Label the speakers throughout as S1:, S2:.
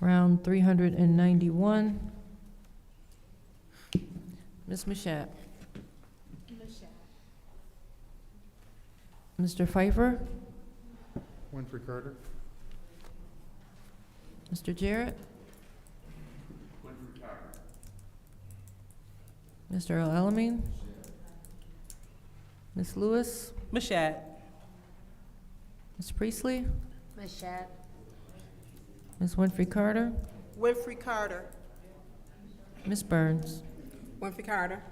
S1: Round 391. Ms. Mashat. Mr. Pfeiffer,
S2: Winfrey Carter.
S1: Mr. Jarrett. Mr. Al Alamin. Ms. Lewis,
S3: Mashat.
S1: Ms. Priestley,
S4: Mashat.
S1: Ms. Winfrey Carter,
S3: Winfrey Carter.
S1: Ms. Burns.
S3: Winfrey Carter.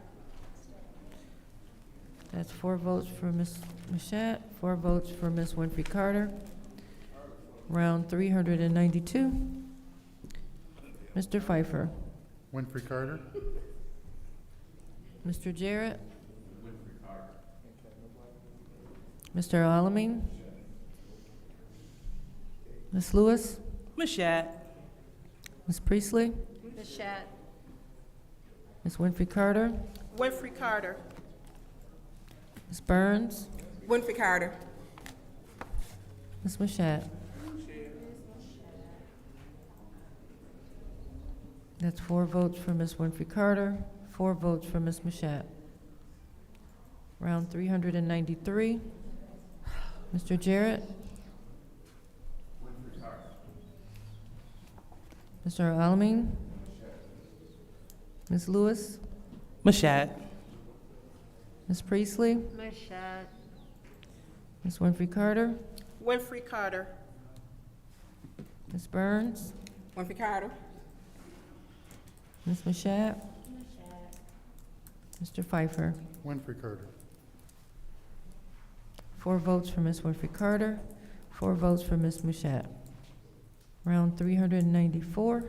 S1: That's four votes for Ms. Mashat, four votes for Ms. Winfrey Carter. Round three hundred and ninety-two. Mr. Pfeiffer,
S2: Winfrey Carter.
S1: Mr. Jarrett. Mr. Alamin. Ms. Lewis,
S3: Mashat.
S1: Ms. Priestley,
S4: Mashat.
S1: Ms. Winfrey Carter,
S3: Winfrey Carter.
S1: Ms. Burns,
S3: Winfrey Carter.
S1: Ms. Mashat. That's four votes for Ms. Winfrey Carter, four votes for Ms. Mashat. Round three hundred and ninety-three. Mr. Jarrett? Mr. Alamin? Ms. Lewis?
S3: Mashat.
S1: Ms. Priestley?
S4: Mashat.
S1: Ms. Winfrey Carter?
S3: Winfrey Carter.
S1: Ms. Burns?
S3: Winfrey Carter.
S1: Ms. Mashat? Mr. Pfeiffer?
S2: Winfrey Carter.
S1: Four votes for Ms. Winfrey Carter, four votes for Ms. Mushat. Round three hundred and ninety-four.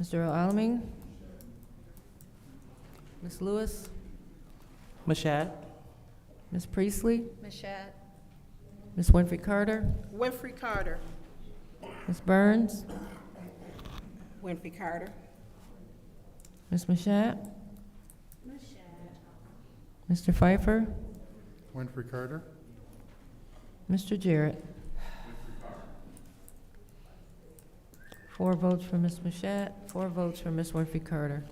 S1: Mr. Alamin? Ms. Lewis?
S3: Mashat.
S1: Ms. Priestley?
S4: Mashat.
S1: Ms. Winfrey Carter?
S3: Winfrey Carter.
S1: Ms. Burns?
S3: Winfrey Carter.
S1: Ms. Mashat? Mr. Pfeiffer?
S2: Winfrey Carter.
S1: Mr. Jarrett. Four votes for Ms. Mashat, four votes for Ms. Winfrey Carter.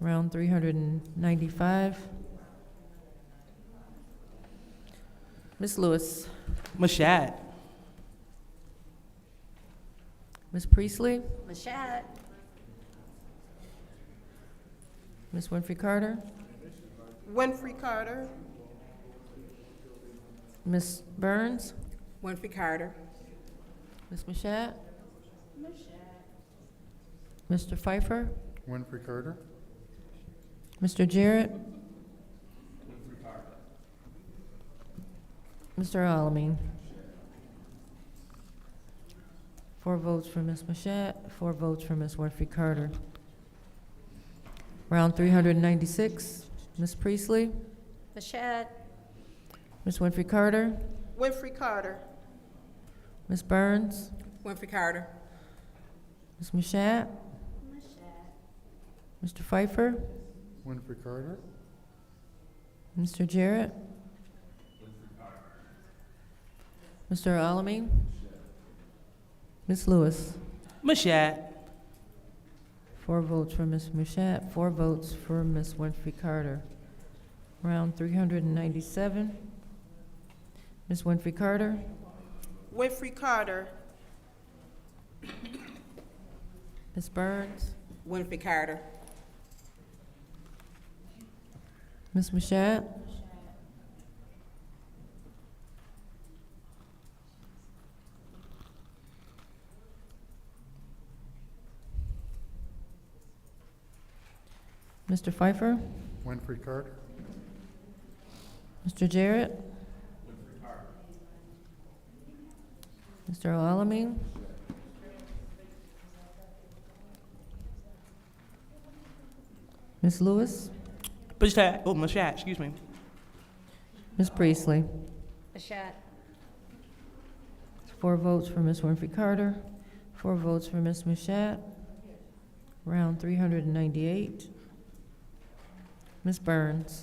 S1: Round three hundred and ninety-five. Ms. Lewis,
S3: Mashat.
S1: Ms. Priestley,
S4: Mashat.
S1: Ms. Winfrey Carter,
S3: Winfrey Carter.
S1: Ms. Burns,
S3: Winfrey Carter.
S1: Ms. Mashat. Mr. Pfeiffer,
S2: Winfrey Carter.
S1: Mr. Jarrett. Mr. Alamin. Four votes for Ms. Mashat, four votes for Ms. Winfrey Carter. Round three hundred and ninety-six, Ms. Priestley,
S4: Mashat.
S1: Ms. Winfrey Carter,
S3: Winfrey Carter.
S1: Ms. Burns,
S3: Winfrey Carter.
S1: Ms. Mashat. Mr. Pfeiffer,
S2: Winfrey Carter.
S1: Mr. Jarrett. Mr. Alamin. Ms. Lewis.
S3: Mashat.
S1: Four votes for Ms. Mashat, four votes for Ms. Winfrey Carter. Round three hundred and ninety-seven. Ms. Winfrey Carter,
S3: Winfrey Carter.
S1: Ms. Burns,
S3: Winfrey Carter.
S1: Ms. Mashat. Mr. Pfeiffer,
S2: Winfrey Carter.
S1: Mr. Jarrett. Mr. Alamin. Ms. Lewis,
S3: Mashat. Oh, Mashat, excuse me.
S1: Ms. Priestley.
S4: Mashat.
S1: Four votes for Ms. Winfrey Carter, four votes for Ms. Mashat. Round three hundred and ninety-eight. Ms. Burns.